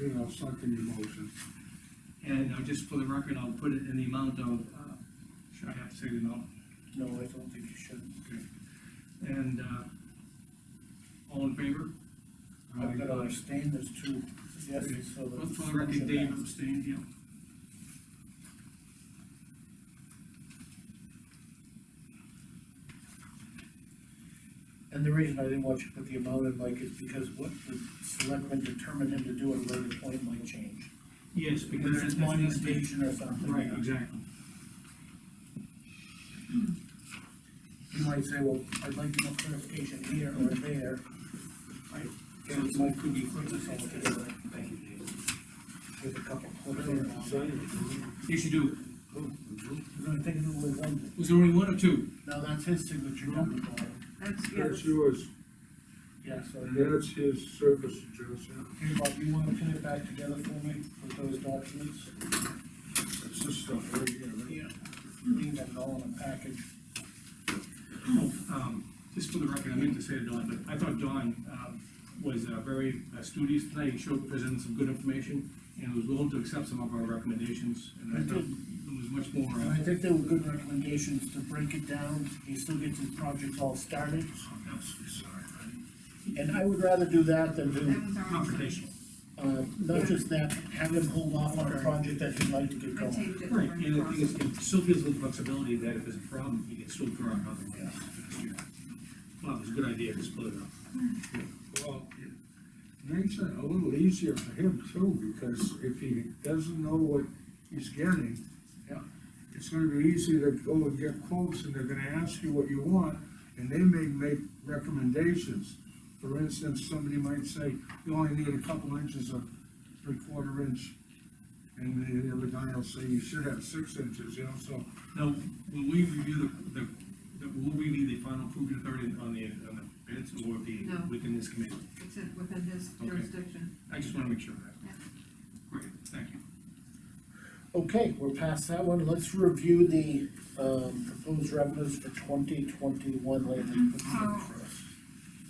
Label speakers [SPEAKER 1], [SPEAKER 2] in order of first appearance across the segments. [SPEAKER 1] Okay, I'll second your motion.
[SPEAKER 2] And uh, just for the record, I'll put it in the amount of, uh, should I have to say the amount?
[SPEAKER 3] No, I don't think you should.
[SPEAKER 2] And, uh, all in favor?
[SPEAKER 3] I'm gonna abstain, there's two yeses, so
[SPEAKER 2] Well,
[SPEAKER 3] the.
[SPEAKER 2] For the record, Dave abstained, yeah.
[SPEAKER 3] And the reason I didn't want you to put the amount in, Mike, is because what the selectmen determined him to do at a later point might change.
[SPEAKER 2] Yes,
[SPEAKER 3] Because it's monumentation or something.
[SPEAKER 2] Right, exactly.
[SPEAKER 3] You might say, well, I'd like more clarification here or there. Right. And it might could be quick to solve it. Thank you, Dave. With a couple quarters. You're
[SPEAKER 2] Yes, you do.
[SPEAKER 3] gonna take it away one,
[SPEAKER 2] Was there only one or two?
[SPEAKER 3] now that's his signature down the bottom.
[SPEAKER 4] That's, yeah,
[SPEAKER 1] That's yours,
[SPEAKER 3] Yeah, so.
[SPEAKER 1] and uh, that's his service address, yeah.
[SPEAKER 3] Hey, Bob, you wanna pin it back together for me with those documents?
[SPEAKER 1] That's this stuff right here, right?
[SPEAKER 3] Leave that all in a package.
[SPEAKER 2] Um, just for the record, I meant to say to Don, but I thought Don, um, was, uh, very uh, studious tonight, he showed, presented some good information, and was willing to accept some of our recommendations, and I thought it was much more,
[SPEAKER 3] And I
[SPEAKER 2] uh,
[SPEAKER 3] think they were good recommendations to break it down, he still gets his projects all started, and I would rather do that than
[SPEAKER 4] that
[SPEAKER 3] do,
[SPEAKER 4] was our.
[SPEAKER 2] confrontational.
[SPEAKER 3] uh, not just that, have him hold off on a project that he'd like to get
[SPEAKER 4] I
[SPEAKER 3] going.
[SPEAKER 4] taped it.
[SPEAKER 2] Right, and the thing is, it still gives a little flexibility that if there's a problem, you can still draw another one. Well, it's a good idea to split it up.
[SPEAKER 1] Well, it makes it a little easier for him too, because if he doesn't know what he's getting,
[SPEAKER 3] Yeah.
[SPEAKER 1] it's gonna be easier to go and get quotes, and they're gonna ask you what you want, and they may make recommendations. For instance, somebody might say, you only need a couple inches of three-quarter inch, and the other guy will say, you should have six inches, you know, so
[SPEAKER 2] Now, will we review the, the, the- will we be the final approving authority on the, on the bids, or be
[SPEAKER 4] No.
[SPEAKER 2] within this committee?
[SPEAKER 4] It's in- within his
[SPEAKER 2] Okay.
[SPEAKER 4] jurisdiction.
[SPEAKER 2] I just wanna make sure of that.
[SPEAKER 4] Yeah.
[SPEAKER 2] Great, thank you.
[SPEAKER 3] Okay, we're past that one, let's review the, um, proposed revenues for twenty twenty-one later.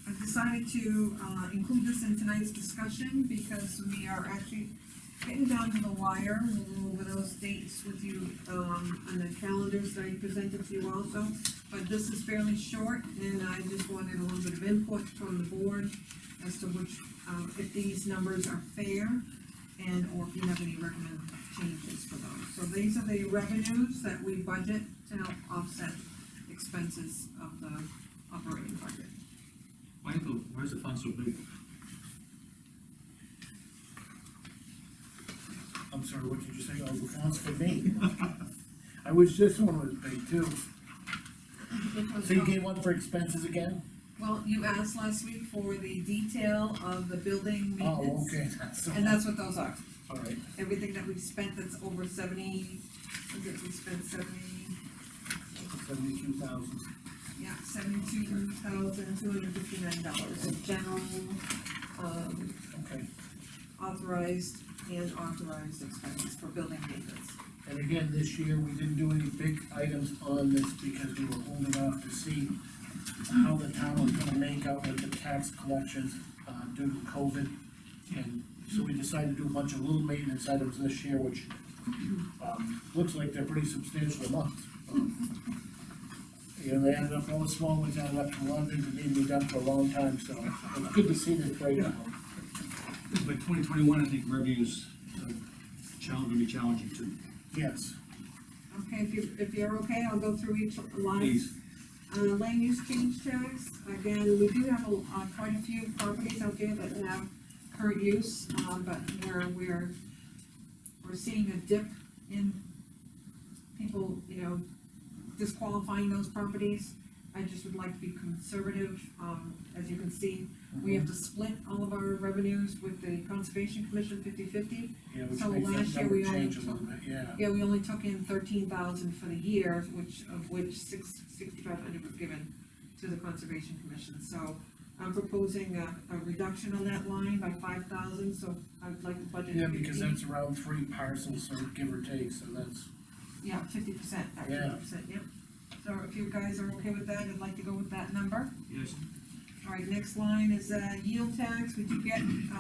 [SPEAKER 4] I decided to, uh, include this in tonight's discussion because we are actually getting down to the wire. We'll go over those dates with you, um, on the calendars that I presented to you also. But this is fairly short and I just wanted a little bit of input from the board as to which, um, if these numbers are fair and or if you have any recommended changes for those. So these are the revenues that we budget to help offset expenses of the operating budget.
[SPEAKER 2] Why is the, why is the font so big?
[SPEAKER 3] I'm sorry, what did you say, oh, the font's for me? I wish this one was big too. So you gave one for expenses again?
[SPEAKER 4] um, Well, you asked last week for the detail of the building
[SPEAKER 3] Oh,
[SPEAKER 4] maintenance,
[SPEAKER 3] okay, that's, the
[SPEAKER 4] and
[SPEAKER 3] one.
[SPEAKER 4] that's what those are.
[SPEAKER 3] all right.
[SPEAKER 4] Everything that we've spent that's over seventy, I think we spent seventy,
[SPEAKER 3] Seventy-two thousand.
[SPEAKER 4] yeah, seventy-two thousand, two hundred fifty-nine dollars. General, um,
[SPEAKER 3] Okay,
[SPEAKER 4] authorized and authorized expenses for building maintenance.
[SPEAKER 3] and again, this year, we didn't do any big items on this because we were holding off to see how the town was gonna make out with the tax collections, uh, due to COVID. And so we decided to do a bunch of little maintenance items this year, which, um, looks like they're pretty substantial amounts. Um, You know, they ended up, all the small ones ended up in London, and they've been done for a long time, so it's good to see this right now.
[SPEAKER 2] By twenty twenty-one, I think revenues, uh, challenge, gonna be challenging too.
[SPEAKER 3] Yes,
[SPEAKER 4] Okay, if you, if you're okay, I'll go through each line.
[SPEAKER 2] Please,
[SPEAKER 4] Uh, land use change tax, again, we do have, a- uh, quite a few properties out there that have current use, um, but we're, we're, we're seeing a dip in people, you know, disqualifying those properties. I just would like to be conservative, um, as you can see, we have to split all of our revenues with the conservation commission 50/50.
[SPEAKER 3] yeah, which
[SPEAKER 4] So
[SPEAKER 3] makes
[SPEAKER 4] last
[SPEAKER 3] that
[SPEAKER 4] year we
[SPEAKER 3] number change a
[SPEAKER 4] only
[SPEAKER 3] little bit, yeah.
[SPEAKER 4] Yeah, we only took in thirteen thousand for the year, which, of which six, sixty-five hundred was given to the Conservation Commission, so I'm proposing a, a reduction on that line by five thousand, so I'd like the budget.
[SPEAKER 3] Yeah, because
[SPEAKER 4] 50.
[SPEAKER 3] that's around three parcels, or give or take, so that's,
[SPEAKER 4] Yeah, fifty percent, that
[SPEAKER 3] Yeah.
[SPEAKER 4] fifty percent, yep. So if you guys are okay with that, I'd like to go with that number.
[SPEAKER 2] yes.
[SPEAKER 4] All right, next line is, uh, yield tax, we do get,